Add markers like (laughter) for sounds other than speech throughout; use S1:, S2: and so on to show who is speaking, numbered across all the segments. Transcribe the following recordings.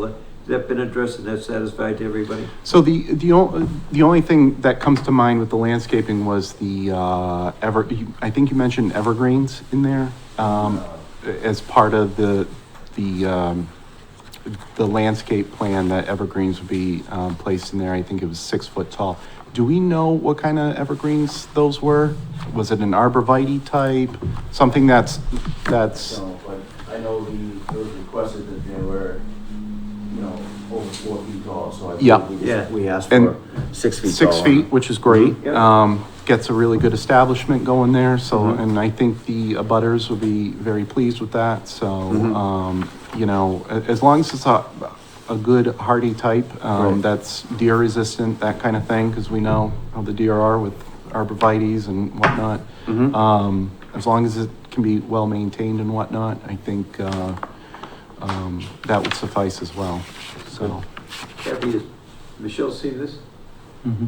S1: Has that been addressed and that's satisfied to everybody?
S2: So the, the only, the only thing that comes to mind with the landscaping was the, uh, ever, you- I think you mentioned evergreens in there, um, as part of the, the, um, the landscape plan that evergreens would be, um, placed in there. I think it was six foot tall. Do we know what kind of evergreens those were? Was it an arborvitae type? Something that's, that's,
S3: So, but I know the, it was requested that they were, you know, over four feet tall, so I. think
S2: Yeah.
S3: we just-
S1: Yeah.
S3: We asked
S2: And
S3: for six feet tall. Mm-hmm.
S2: six feet, which is great.
S1: Mhm.
S2: Um, gets a really good establishment going there, so,
S3: Mm-hmm.
S1: Mhm.
S2: and I think the abutters will be very pleased with that, so,
S3: Mm-hmm.
S1: Mhm.
S2: um, you know, a- as long as it's a, a good hardy type, um,
S3: Right.
S2: that's deer resistant, that kind of thing, because we know how the deer are with arborvitae's and whatnot.
S3: Mm-hmm.
S1: Mhm.
S2: Um, as long as it can be well-maintained and whatnot, I think, uh, um, that would suffice as well, so.
S1: Kathy, has Michelle seen this?
S3: Mm-hmm.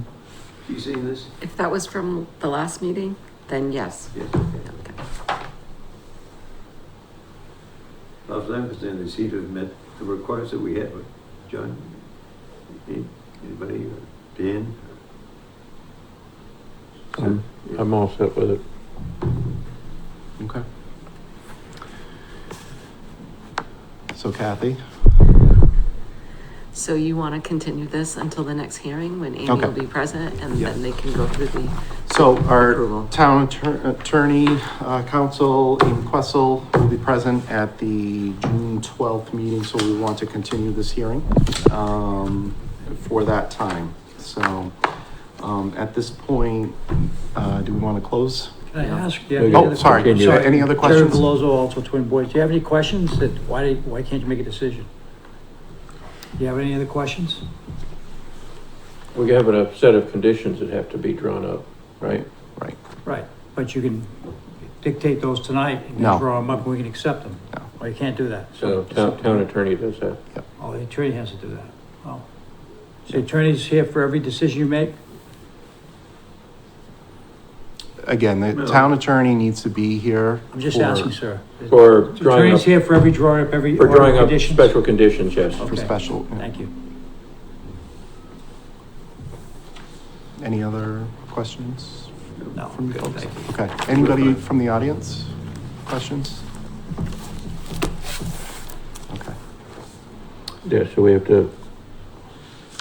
S1: You seen this?
S4: If that was from the last meeting, then yes.
S1: Yes, okay.
S4: Okay.
S1: As I understand, they seem to have met the requirements that we had with John. Any- Anybody, uh, Dan?
S5: Um, I'm all set with it.
S2: Okay. So Kathy?
S4: So you want to continue this until the next hearing when Amy
S2: Okay.
S4: will be present and
S2: Yeah.
S4: then they can go through the,
S2: So our
S4: Approval.
S2: town attor- attorney, uh, counsel, Amy Questle will be present at the June twelfth meeting, so we want to continue this hearing, um, for that time. So, um, at this point, uh, do we want to close?
S6: Can I ask? do you have
S5: Okay.
S6: any
S2: Oh,
S6: other
S2: sorry,
S6: questions?
S5: Sorry.
S2: any other
S6: Terry
S2: questions?
S6: Velozzo, also Twin Boys. Do you have any questions that, why, why can't you make a decision? Do you have any other questions?
S5: We have a set of conditions that have to be drawn up, right?
S2: Right,
S6: Right, but you can dictate those tonight and
S2: No.
S6: then draw them up and we can accept them.
S2: No.
S6: Well, you can't do that.
S5: So
S6: it's up
S5: town,
S6: to-
S5: town attorney does that.
S6: Oh, the attorney has to do that. Oh. So The attorney's here for every decision you make?
S2: again,
S1: No.
S2: the town attorney needs to be here.
S6: I'm just
S2: for-
S6: asking, sir.
S5: For
S6: The
S5: drawing up,
S6: Attorney's here for every drawing up, every
S5: for
S6: order of
S5: drawing up
S6: conditions?
S5: special conditions, yes.
S2: For
S6: Okay.
S2: special,
S6: Thank you.
S2: any other questions?
S6: No.
S2: from you folks?
S6: Thank you.
S2: Okay, anybody from the audience? Questions? Okay,
S5: Yeah, so we have to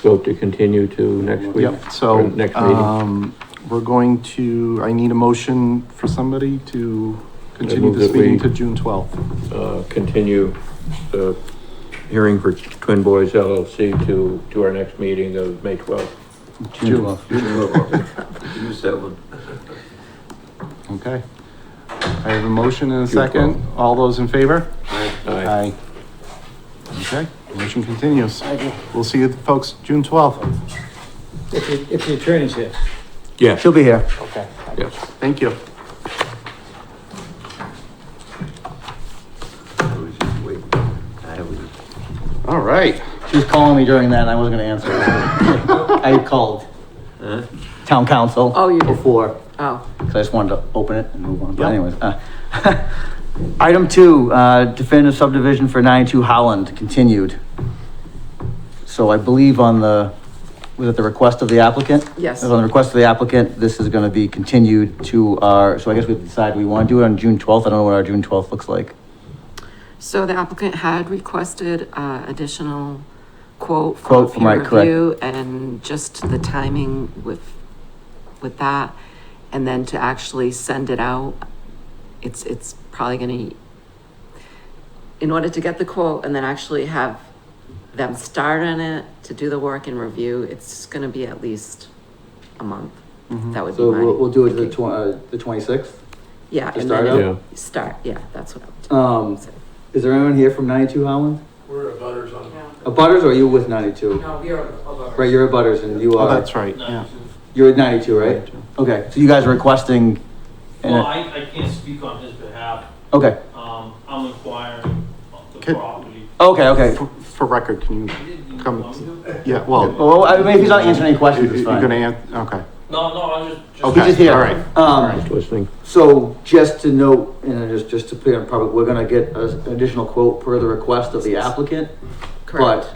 S5: vote to continue to next week?
S2: yep, so,
S5: Or next meeting.
S2: um, we're going to, I need a motion for somebody to continue
S5: move
S2: this
S5: that we-
S2: meeting to June twelfth.
S5: Uh, continue the hearing for Twin Boys LLC to, to our next meeting of May twelfth.
S1: You Use that one.
S2: Okay. I have a motion and a second. All those in favor? Aye. Okay, motion continues. We'll see you folks June twelfth.
S6: If the, if the attorney's here.
S5: Yes.
S3: She'll be here.
S5: Yes.
S2: Thank you.
S1: I was just waiting. I was-
S2: All right.
S3: She was calling me during that and I wasn't gonna answer. I called
S1: Huh?
S3: town council.
S4: Oh, you did.
S3: Before,
S4: oh,
S3: because I just wanted to open it and move on, but
S2: Yep.
S3: anyways. uh, (laughs) Item two, uh, definitive subdivision for ninety-two Holland, continued. So I believe on the, was it the request of the applicant?
S4: Yes.
S3: On the request of the applicant, this is gonna be continued to our, so I guess we decide we wanna do it on June twelfth, I don't know what our June twelfth looks like.
S4: so the applicant had requested, uh, additional quote for
S3: Quote, right,
S4: peer
S3: correct.
S4: review and just the timing with, with that. And then to actually send it out, it's, it's probably gonna, in order to get the quote and then actually have them start on it, to do the work and review, it's gonna be at least a month.
S3: Mm-hmm.
S4: That would be
S7: So we'll,
S4: my,
S7: we'll do it the tw- uh, the twenty-sixth.
S4: yeah.
S7: to
S4: and
S7: start
S4: then
S7: out?
S5: Yeah.
S4: Start, yeah, that's what I would do.
S7: Um, is there anyone here from ninety-two Holland?
S5: We're at butters on.
S7: A Butters or are you with ninety-two?
S4: No, we are
S7: Right, you're a Butters and you are,
S2: Oh, that's right, yeah.
S7: you're at ninety-two, right? Okay,
S3: So you guys are requesting, and,
S8: Well,
S3: uh,
S8: I, I can't speak on his behalf.
S3: okay,
S8: Um, I'm inquiring of the
S2: Could-
S8: property.
S3: okay, okay.
S2: For- For record, can you, Come- yeah, well,
S3: Well, I mean, if he's not answering any questions,
S2: you're
S3: it's
S2: you're
S3: fine.
S2: gonna, an- okay.
S8: No, no, I'm just, just.
S2: Okay,
S3: just here.
S2: All right,
S3: Um,
S5: Listening.
S7: So just to note, and just, just to clear on public, we're gonna get a- an additional quote per the request of the applicant.
S4: Correct.
S7: But